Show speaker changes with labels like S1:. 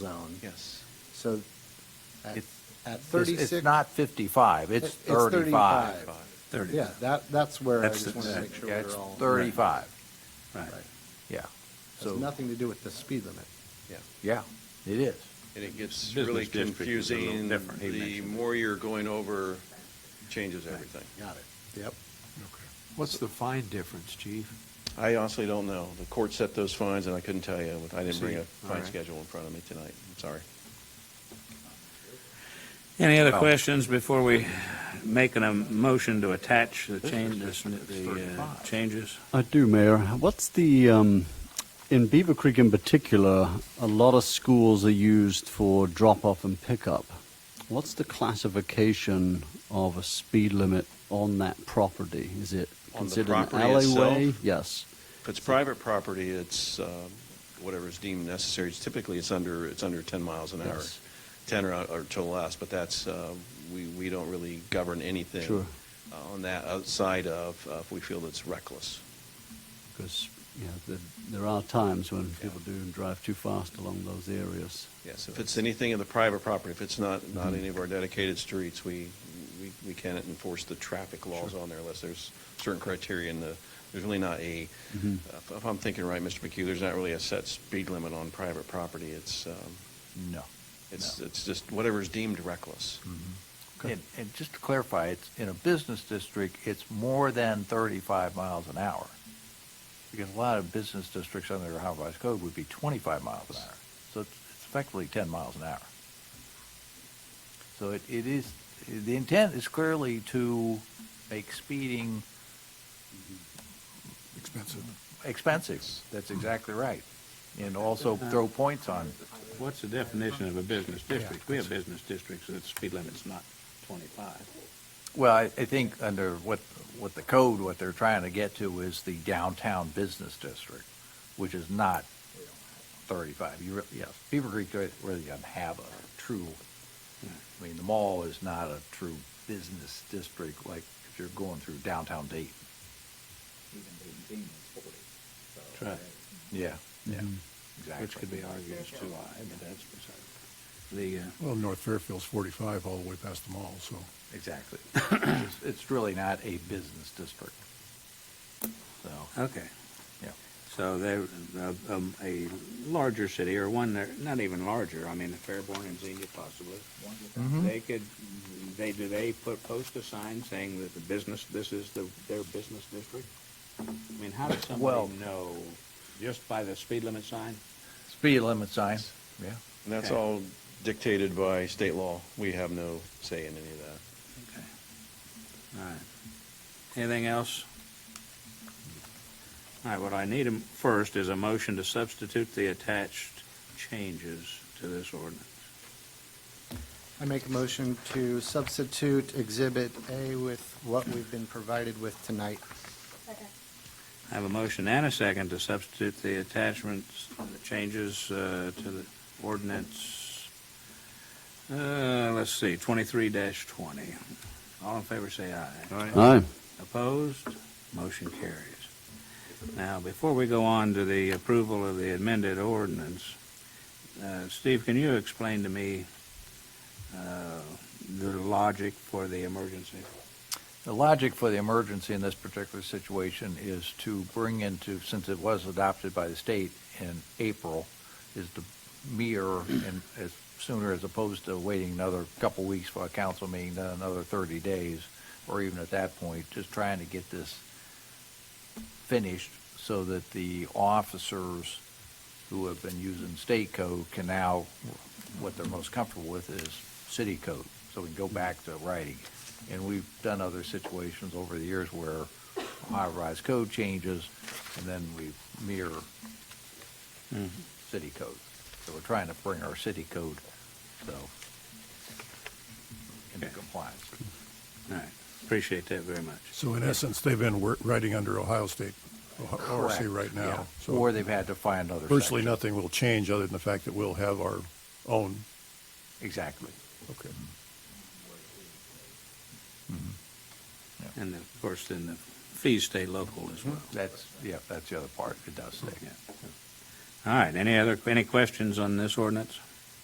S1: zone.
S2: Yes.
S1: So at,
S2: It-
S1: at
S3: It's-
S1: thirty-six.
S3: It's not 55, it's
S1: It's
S3: 35.
S1: 35.
S2: Thirty.
S1: Yeah, that, that's where I
S2: That's
S1: just
S2: the-
S1: want to
S2: that-
S1: make sure
S3: Yeah, it's
S1: we're all.
S3: 35,
S2: Right,
S1: Right.
S3: yeah.
S1: Has
S3: So,
S1: nothing to do with the speed limit.
S2: yeah.
S3: yeah, it is.
S2: And it gets
S4: Business
S2: really
S4: district is a little
S2: confusing.
S4: different. He
S2: The
S4: mentioned it.
S2: more you're going over, changes everything.
S1: Got it. Yep.
S5: What's the fine difference, chief?
S2: I honestly don't know. The court set those fines, and I couldn't tell you. I didn't bring a
S5: See, all
S2: fine
S5: right.
S2: schedule in front of me tonight. I'm sorry.
S4: Any other questions before we make an, a motion to attach the changes, the uh,
S3: 35.
S4: changes?
S6: I do, Mayor. What's the, um, in Beaver Creek in particular, a lot of schools are used for drop off and pickup. What's the classification of a speed limit on that property? Is it
S2: On the
S6: considered an
S2: property itself?
S6: alleyway? Yes.
S2: If it's private property, it's um, whatever is deemed necessary. It's Typically, it's under, it's under 10 miles an hour,
S6: Yes.
S2: 10 or, or to less, but that's, uh, we, we don't really govern anything
S6: Sure.
S2: uh, on that outside of, uh, if we feel it's reckless.
S6: Because you know, the, there are times when people do drive too fast along those areas.
S2: Yes, if it's anything in the private property, if it's not, not any of our dedicated streets, we, we, we can't enforce the traffic laws on there unless there's certain criteria in the, there's really not a, uh, if if I'm thinking right, Mr. McHugh, there's not really a set speed limit on private property. It's, um,
S3: No.
S2: It's, it's just whatever's deemed reckless.
S3: And, and just to clarify, it's, in a business district, it's more than 35 miles an hour. Because a lot of business districts under the Ohio Revised Code would be 25 miles an hour. So it's it's effectively 10 miles an hour. So it, it is, the intent is clearly to make speeding
S5: Expensive.
S3: expensive. That's exactly right. And also throw points on,
S4: What's the definition of a business district? We have business districts that speed limit's not 25.
S3: well, I, I think under what, what the code, what they're trying to get to is the downtown business district, which is not thirty-five. You really, yes, Beaver Creek really doesn't have a true, I mean, the mall is not a true business district like if you're going through downtown Dayton.
S4: That's right. Mm-hmm.
S3: Yeah. Yeah, exactly.
S4: Which could be argued is too high, but that's beside the point. The, uh,
S5: Well, North Fairfield's 45 all the way past the mall, so.
S3: Exactly. It's- It's really not a business district. So,
S4: Okay,
S3: yeah.
S4: so they're, uh, um, a larger city, or one that, not even larger, I mean, Fairborn and Xenia possibly.
S3: Mm-hmm.
S4: They could, they, do they put, post a sign saying that the business, this is the, their business district? I mean, how does
S3: Well-
S4: somebody know, just by the speed limit sign?
S3: Speed limit sign, yeah.
S2: And that's
S4: Okay.
S2: all dictated by state law. We have no say in any of that.
S4: Okay. All right. Anything else? All right, what I need em- first is a motion to substitute the attached changes to this ordinance.
S1: I make a motion to substitute Exhibit A with what we've been provided with tonight.
S4: I have a motion and a second to substitute the attachments, the changes uh, to the ordinance, uh, let's see, 23-20. All in favor, say aye.
S6: Aye.
S4: Opposed? Motion carries. Now, before we go on to the approval of the amended ordinance, uh, Steve, can you explain to me uh, the logic for the emergency?
S3: The logic for the emergency in this particular situation is to bring into, since it was adopted by the state in April, is to mirror and as sooner as opposed to waiting another couple weeks for a council meeting, then another 30 days, or even at that point, just trying to get this finished so that the officers who have been using state code can now, what they're most comfortable with is city code. So we can go back to writing. And we've done other situations over the years where high revised code changes and then we mirror city code. So we're trying to bring our city code, so, into
S4: Okay.
S3: compliance.
S4: All right, appreciate that very much.
S5: So in essence, they've been wor- writing under Ohio State O-
S3: Correct,
S5: ORC right
S3: yeah.
S5: now.
S3: Or
S5: So
S3: they've had to find other.
S5: virtually
S3: sections.
S5: nothing will change other than the fact that we'll have our own.
S3: Exactly.
S5: Okay.
S4: And of course, then the fees stay local as well.
S3: That's, yeah, that's the other part. It does stay.
S4: Yeah. All right, any other, any questions on this ordinance?